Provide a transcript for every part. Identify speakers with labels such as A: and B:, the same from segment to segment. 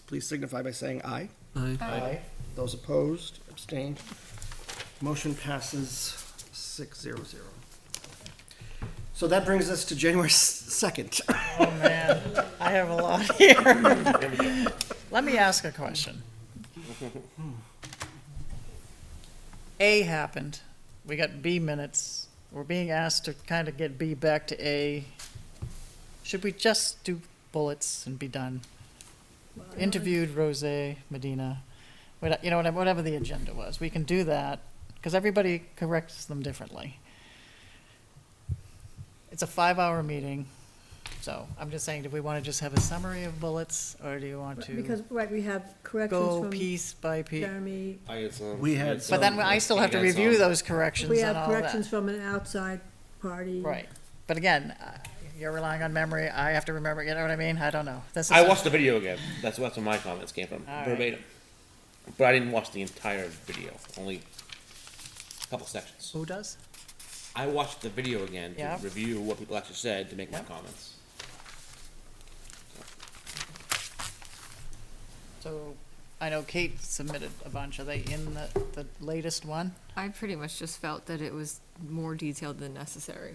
A: please signify by saying aye.
B: Aye.
A: Aye. Those opposed, abstained. Motion passes six zero zero. So that brings us to January second.
C: Oh, man, I have a lot here. Let me ask a question. A happened, we got B minutes, we're being asked to kind of get B back to A. Should we just do bullets and be done? Interviewed Rose Medina, What- you know, whatever- whatever the agenda was, we can do that, because everybody corrects them differently. It's a five-hour meeting. So I'm just saying, do we want to just have a summary of bullets, or do you want to
D: Because, right, we have
C: go
D: corrections
C: piece by
D: from
C: piece?
D: Jeremy,
E: I had some.
A: We had
C: But then I still have to review those corrections
D: we
C: and
D: have
C: all that.
D: corrections from an outside party.
C: Right, but again, uh, you're relying on memory, I have to remember, you know what I mean? I don't know. This is
E: I
C: a-
E: watched the video again. That's that's where my comments came from,
C: All right.
E: verbatim. But I didn't watch the entire video, only a couple sections.
C: Who does?
E: I watched the video again to
C: Yep.
E: review what people actually said to make
C: Yep.
E: my comments.
C: So I know Kate submitted a bunch. Are they in the, the latest one?
F: I pretty much just felt that it was more detailed than necessary.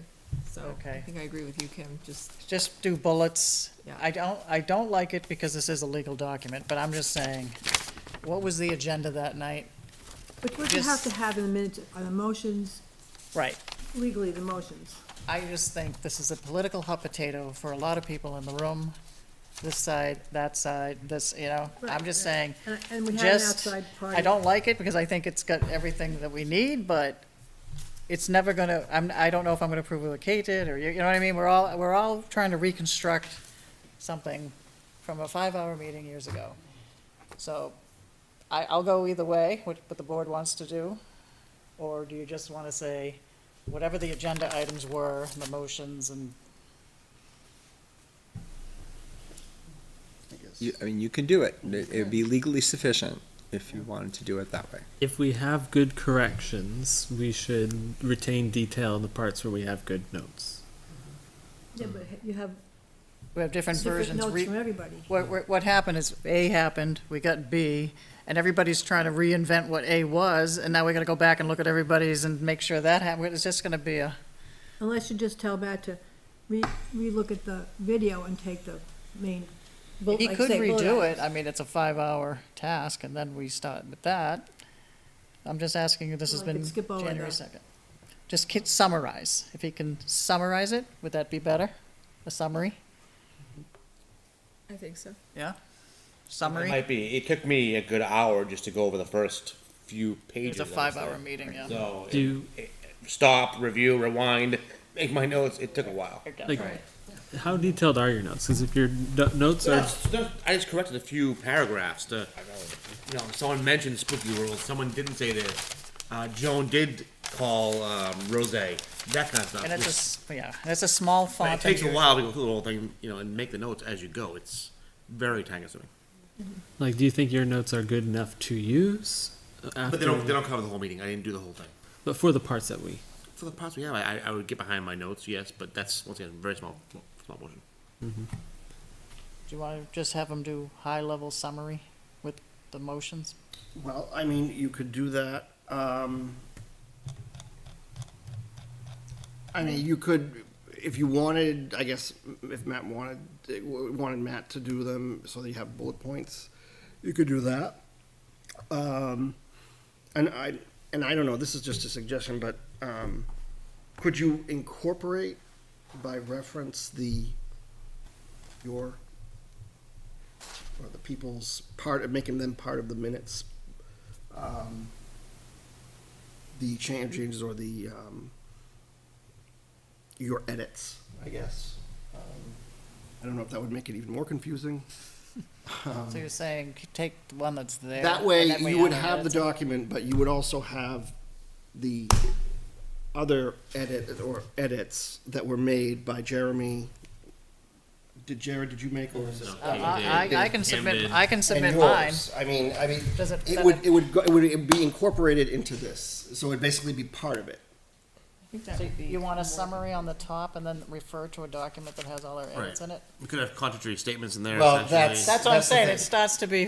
F: So I
C: Okay.
F: think I agree with you, Kim, just,
C: Just do bullets.
F: Yeah.
C: I don't, I don't like it because this is a legal document, but I'm just saying, what was the agenda that night?
D: Which what you have
C: Just-
D: to have in the minutes are the motions,
C: Right.
D: legally the motions.
C: I just think this is a political hot potato for a lot of people in the room, this side, that side, this, you know, I'm just saying,
D: And- And we had an
C: just,
D: outside party.
C: I don't like it because I think it's got everything that we need, but it's never gonna, I'm, I don't know if I'm gonna approve what Kate did, or, you you know what I mean? We're all, we're all trying to reconstruct something from a five-hour meeting years ago. So I, I'll go either way, what, what the board wants to do. Or do you just wanna say, whatever the agenda items were, the motions and
G: You, I mean, you can do it. It it would be legally sufficient if you wanted to do it that way.
B: If we have good corrections, we should retain detail in the parts where we have good notes.
D: Yeah, but you have
C: we have different
D: different
C: versions.
D: notes
C: re-
D: from everybody.
C: What, what- what happened is A happened, we got B, and everybody's trying to reinvent what A was, and now we gotta go back and look at everybody's and make sure that happened. It's just gonna be a,
D: Unless you just tell Matt to re, re-look at the video and take the main. bull-
C: he
D: like
C: could
D: say, bullet
C: redo
D: out.
C: it. I mean, it's a five-hour task, and then we start with that. I'm just asking you, this has
D: Well, I could
C: been
D: skip over
C: January
D: that.
C: second. Just ki- summarize. If he can summarize it, would that be better? A summary?
F: I think so.
C: Yeah?
E: It
C: Summary?
E: might be. It took me a good hour just to go over the first few
C: It's
E: pages.
C: a
E: I was
C: five-hour
E: there.
C: meeting, yeah.
E: So
B: Do you-
E: it- it- stop, review, rewind, make my notes. It took a while.
B: Like, how detailed are your notes? Because if your no- notes
E: No,
B: are
E: it's not- I just corrected a few paragraphs to, you know, someone mentioned spooky rules, someone didn't say this. Uh, Joan did call, um, Rose, that kind of stuff.
C: And it's a,
E: which-
C: s- yeah, and it's a small
E: but
C: font.
E: It takes a
C: usually.
E: while to go through the whole thing, you know, and make the notes as you go. It's very time consuming.
B: like, do you think your notes are good enough to use? After,
E: But they don't, they don't cover the whole meeting. I didn't do the whole thing.
B: but for the parts that we
E: For the parts we have, I, I- I would get behind my notes, yes, but that's, once again, very small, small portion.
C: Do you want to just have them do high-level summary with the motions?
A: Well, I mean, you could do that. Um, I mean, you could, if you wanted, I guess, if Matt wanted, wanted Matt to do them so that you have bullet points, you could do that. Um, and I, and I don't know, this is just a suggestion, but, um, could you incorporate by reference the, your or the people's part of making them part of the minutes. um, The change- changes or the, um, your edits, I guess. Um, I don't know if that would make it even more confusing.
C: So you're saying, c- take the one that's there.
A: That
C: and
A: way,
C: then we
A: you would
C: add
A: have the
C: it.
A: document, but you would also have the other edit or edits that were made by Jeremy. Did Jared, did you make or is it?
C: Uh, I, I- I can submit, I can
A: And
C: submit mine.
A: yours. I mean, I mean,
C: Does it-
A: it would, it would, go- it would be incorporated into this, so it'd basically be part of it.
C: So You want a summary on the top and then refer to a document that has all our edits
E: Right.
C: in it?
E: We could have contradictory statements in there.
A: Well,
E: essentially.
A: that's-
C: That's what I'm
A: the
C: saying,
A: thing.
C: it starts to be